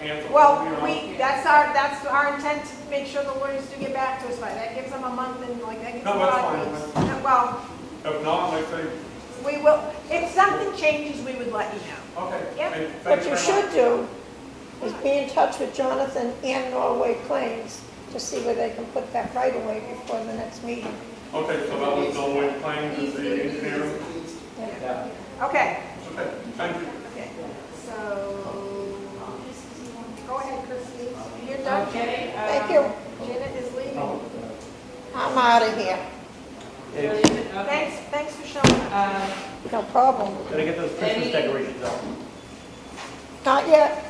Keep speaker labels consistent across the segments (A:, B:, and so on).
A: handle.
B: Well,
A: you know.
B: we, that's our, that's our intent to make sure the lawyers do get back to us by, that gives them a month and like, that gives them
A: No, that's fine,
B: five weeks. No, Well,
A: If not, like say,
B: we will, if something changes, we would let you know.
A: okay.
B: Yep.
A: hey, thank
C: What you
A: very
C: should
A: much.
C: do is be in touch with Jonathan and Norway Plains to see where they can put that right away before the next meeting.
A: Okay, so that was no way claims is the engineer.
D: Yeah.
B: Okay,
A: Okay, thank you.
B: okay, so, go ahead, Christine, you're done.
E: Okay. um,
C: Thank you.
B: Janet is leaving.
C: I'm out of here.
E: really, okay.
B: Thanks, thanks for showing up.
E: Um,
C: No problem.
D: Gotta get those Christmas
E: Any- uh,
D: decorations up.
C: Not yet.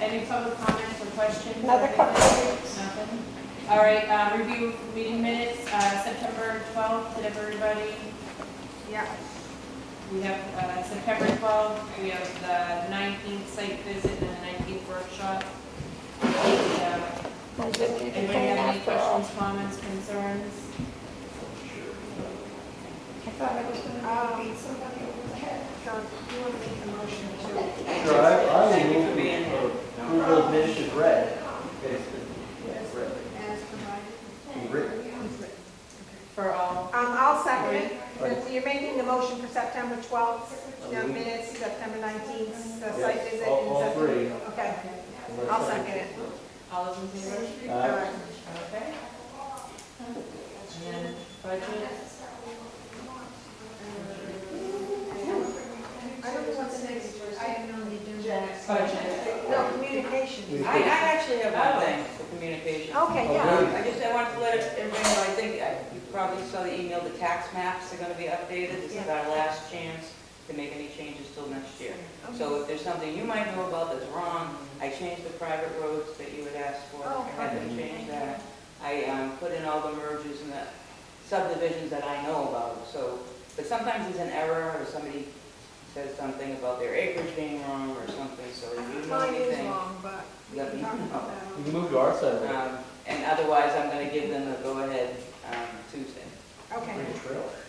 E: Any public comments or questions?
C: Another couple of weeks.
E: Nothing? All right, uh, review meeting minutes, uh, September 12th, did everybody,
B: Yeah,
E: we have uh, September 12th, we have the 19th site visit and the 19th workshop. And, uh,
C: I didn't even
E: Anybody
C: clean
E: have any
C: after all.
E: questions, comments, concerns?
C: I thought I was gonna
B: Um,
C: beat somebody over the head.
B: John, you want to make a motion to,
D: Sure, I, I will
E: Thank you for
D: move
E: being here.
D: to approve those minutes as read. Basically, yeah, read.
B: as provided?
D: Written.
E: For all,
B: Um, I'll second it. You're making the motion for September 12th, no minutes, September 19th, the site
D: Yes,
B: visit.
D: all-
B: and
D: all
B: September-
D: three.
B: Okay, I'll second it.
E: all those in favor?
B: All
D: Uh,
B: right.
E: Okay. And then budget,
B: I don't know what the next, I have no
E: budget.
B: No, communication.
F: I, I actually have one thing for communication.
D: Oh,
B: Okay, yeah.
D: Okay.
F: I just, I wanted to let everybody know, I think, I- you probably saw the email, the tax maps are gonna be updated. This is our last chance to make any changes till next year. So if there's something you might know about that's wrong, I changed the private roads that you had asked for.
B: Oh,
F: I had them change that. I, um, put in all the mergers and the subdivisions that I know about, so, but sometimes it's an error, or somebody says something about their acreage being wrong or something, so if you know
B: Uh-huh. Mine is
F: anything.
B: long, but we
F: Let
B: can
F: me
B: talk about
F: know.
D: You
B: that.
D: can move to our side. of it.
F: Um, And otherwise, I'm going to give them a go-ahead um, Tuesday.
B: Okay.
D: Bring a trailer.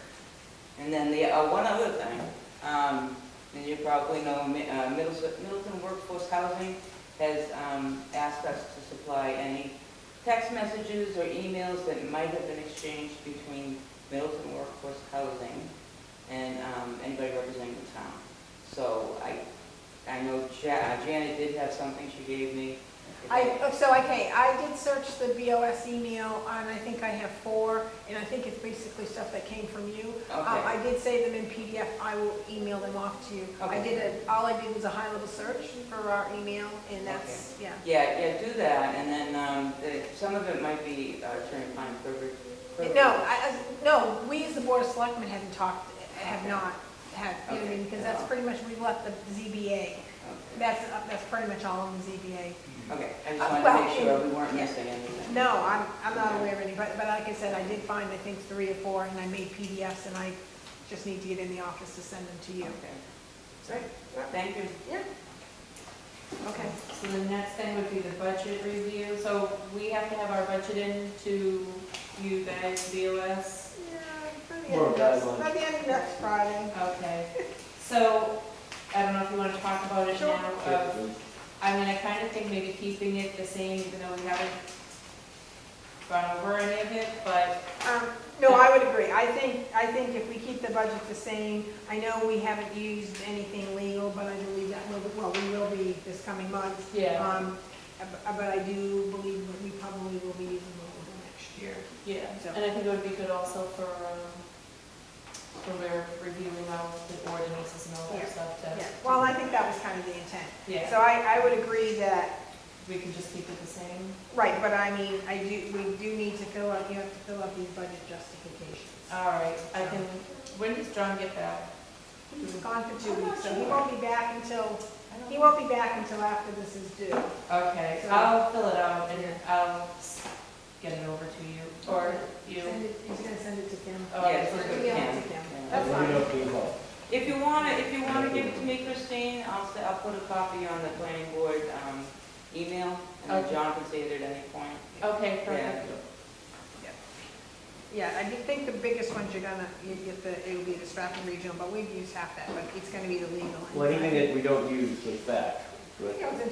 F: And then the, uh, one other thing, um, and you probably know, Mi- uh, Middles- Middleton Workforce Housing has um, asked us to supply any text messages or emails that might have been exchanged between Middleton Workforce Housing and um, anybody representing the town. So I, I know Ja- uh, Janet did have something she gave me.
B: I, oh, so, okay, I did search the BOS email, and I think I have four, and I think it's basically stuff that came from you. Um,
F: Okay.
B: I did save them in PDF, I will email them off to you. I
F: Okay.
B: did a, all I did was a high-level search for our email, and that's, yeah.
F: Yeah, yeah, do that, and then, um, the- some of it might be uh, attorney-client privilege.
B: No, I, I- no, we as the Board of Selectmen haven't talked, have not had, you know what I mean, because that's pretty much, we left the ZBA.
F: Okay,
B: That's, that's pretty much all on the ZBA.
F: Okay, I
B: Uh,
F: just wanted
B: well,
F: to make sure
B: in-
F: we weren't
B: yeah.
F: missing anything.
B: No, I'm, I'm not aware of any, but, but like I said, I did find, I think, three or four, and I made PDFs, and I just need to get in the office to send them to you.
F: Okay. Thank you.
B: Yeah. Okay.
E: So the next thing would be the budget review, so we have to have our budget in to you guys, BOS.
B: Yeah,
D: More guidelines.
B: by the end of next Friday.
E: Okay, so, I don't know if you wanna talk about it
B: Sure.
E: now. uh, I mean, I kinda think maybe keeping it the same, even though we haven't gone over any of it, but,
B: Um, No, I would agree. I think, I think if we keep the budget the same, I know we haven't used anything legal, but I believe that will, well, we will be this coming month.
E: yeah,
B: Um, ab- But I do believe that we probably will be using legal next year.
E: yeah. And I think it would be good also for, um, when we're reviewing all the ordinances and all that
B: Yeah.
E: stuff to.
B: Yeah. Well, I think that was kind of the intent.
E: Yeah.
B: So I, I would agree that
E: we can just keep it the same.
B: Right, but I mean, I do, we do need to fill out, you have to fill out these budget justifications.
E: All right, I can, when does John get back?
B: He's
E: Mm-hmm.
B: gone for two weeks, so he won't be back until, he won't be back until after this is due.
E: Okay, I'll fill it out and I'll s- get it over to you, or you.
B: Send it- He's gonna send it to Kim.
E: Oh,
F: Yes,
E: okay.
F: okay.
B: Email it
F: Kim.
B: to Kim.
F: Yeah.
B: That's
D: Let me know
B: fine.
D: if you want.
F: If you want to, if you want to give it to me, Christine, I'll, s- I'll put a copy on the planning board um, email, and then
E: Okay.
F: John can see it at any point.
E: Okay,
F: Yeah.
E: perfect.
B: Yeah, I do think the biggest ones you're gonna, you get the, it'll be the Stratford Regional, but we've used half that, but it's gonna be the legal.
D: Well, anything that we don't use is back,
B: I
D: but.
B: think it was in